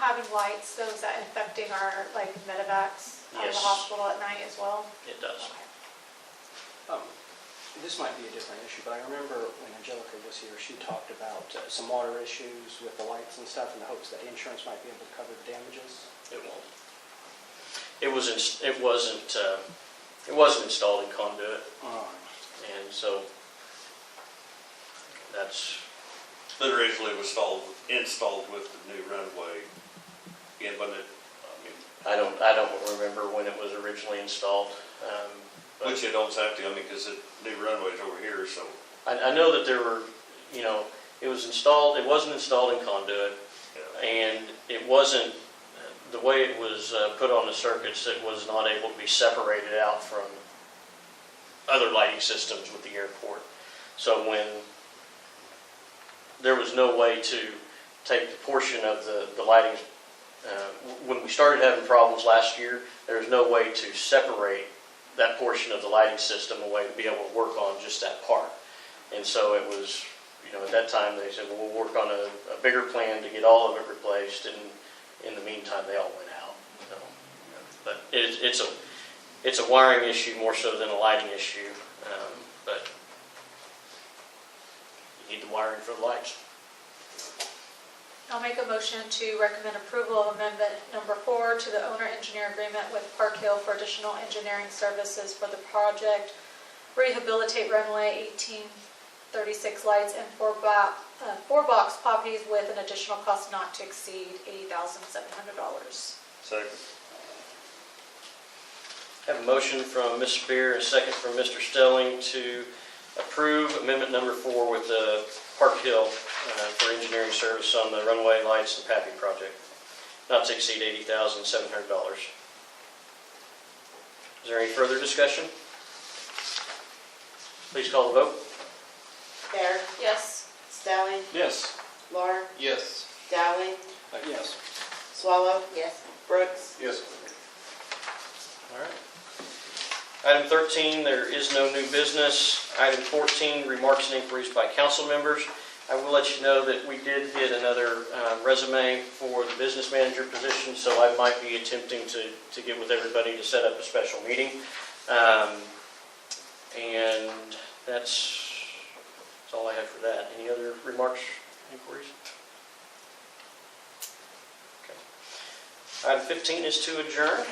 having lights, though, is that affecting our, like, medevacs out of Yes. the hospital at night as well? It does. Okay. Um, This might be a different issue, but I remember when Angelica was here, she talked about uh, some water issues with the lights and stuff in the hopes that insurance might be able to cover the damages. It won't. It was, ins- it wasn't, uh, it wasn't installed in conduit, Um, and so that's, That originally was installed, installed with the new runway, and when it, I mean, I don't, I don't remember when it was originally installed. um, but- which it don't have to, I mean, because the new runway's over here, so I, I know that there were, you know, it was installed, it wasn't installed in conduit, yeah, and it wasn't, the way it was uh, put on the circuits, it was not able to be separated out from other lighting systems with the airport. So when, there was no way to take the portion of the, the lighting, uh, when we started having problems last year, there was no way to separate that portion of the lighting system away to be able to work on just that part. And so it was, you know, at that time, they said, well, we'll work on a, a bigger plan to get all of it replaced, and in the meantime, they all went out, so. But it, it's a, it's a wiring issue more so than a lighting issue, um, but you need the wiring for the lights. I'll make a motion to recommend approval of amendment number four to the owner-engineer agreement with Park Hill for additional engineering services for the project. Rehabilitate runway 1836 lights and four box, four box poppies with an additional cost not to exceed $80,700. second. Have a motion from Ms. Spear and a second from Mr. Stelling to approve amendment number four with the Park Hill uh, for engineering service on the runway lights and papping project, not to exceed $80,700. Is there any further discussion? Please call the vote. Bear, Yes. Stelling, Yes. Laura, Yes. Dowling, Uh, Yes. Swallow. Yes. Brooks. Yes. All right. Item 13, there is no new business. Item 14, remarks and inquiries by council members. I will let you know that we did get another uh, resume for the business manager position, so I might be attempting to, to get with everybody to set up a special meeting. Um, And that's, that's all I have for that. Any other remarks, inquiries? Okay. Item 15 is to adjourn.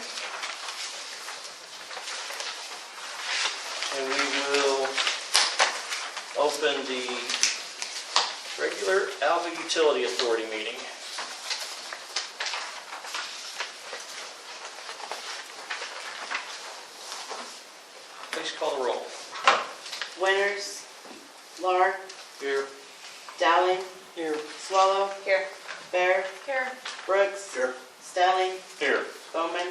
And we will open the regular Alva Utility Authority meeting. Please call the roll. Winters, Laura, Here. Dowling, Here. Swallow. Here. Bear, Here. Brooks. Here. Stelling, Here. Bowman.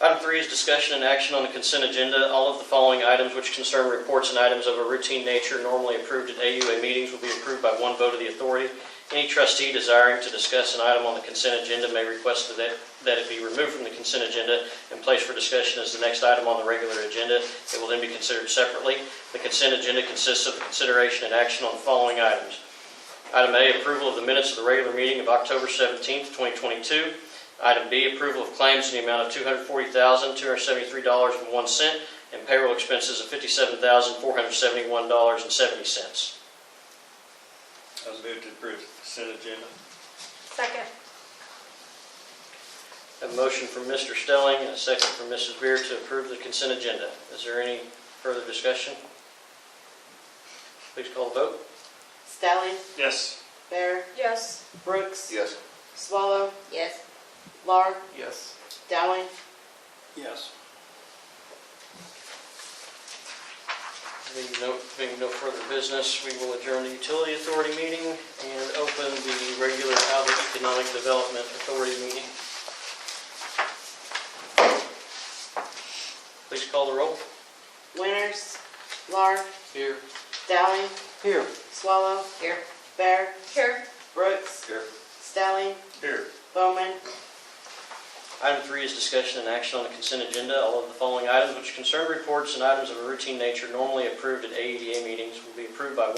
Item three is discussion and action on the consent agenda. All of the following items which concern reports and items of a routine nature normally approved at AUA meetings will be approved by one vote of the authority. Any trustee desiring to discuss an item on the consent agenda may request that, that it be removed from the consent agenda and placed for discussion as the next item on the regular agenda. It will then be considered separately. The consent agenda consists of the consideration and action on the following items. Item A, approval of the minutes of the regular meeting of October 17th, 2022. Item B, approval of claims in the amount of $240,273.01 and payroll expenses of $57,471.70. I was moved to approve the consent agenda. Second. Have a motion from Mr. Stelling and a second from Mrs. Beer to approve the consent agenda. Is there any further discussion? Please call the vote. Stelling, Yes. Bear, Yes. Brooks. Yes. Swallow. Yes. Laura, Yes. Dowling, Yes. Being no, being no further business, we will adjourn the utility authority meeting and open the regular Albert Economic Development Authority meeting. Please call the roll. Winters, Laura, Here. Dowling, Here. Swallow. Here. Bear, Here. Brooks. Here. Stelling, Here. Bowman. Item three is discussion and action on the consent agenda. All of the following items which concern reports and items of a routine nature normally approved at AEDA E meetings will be approved by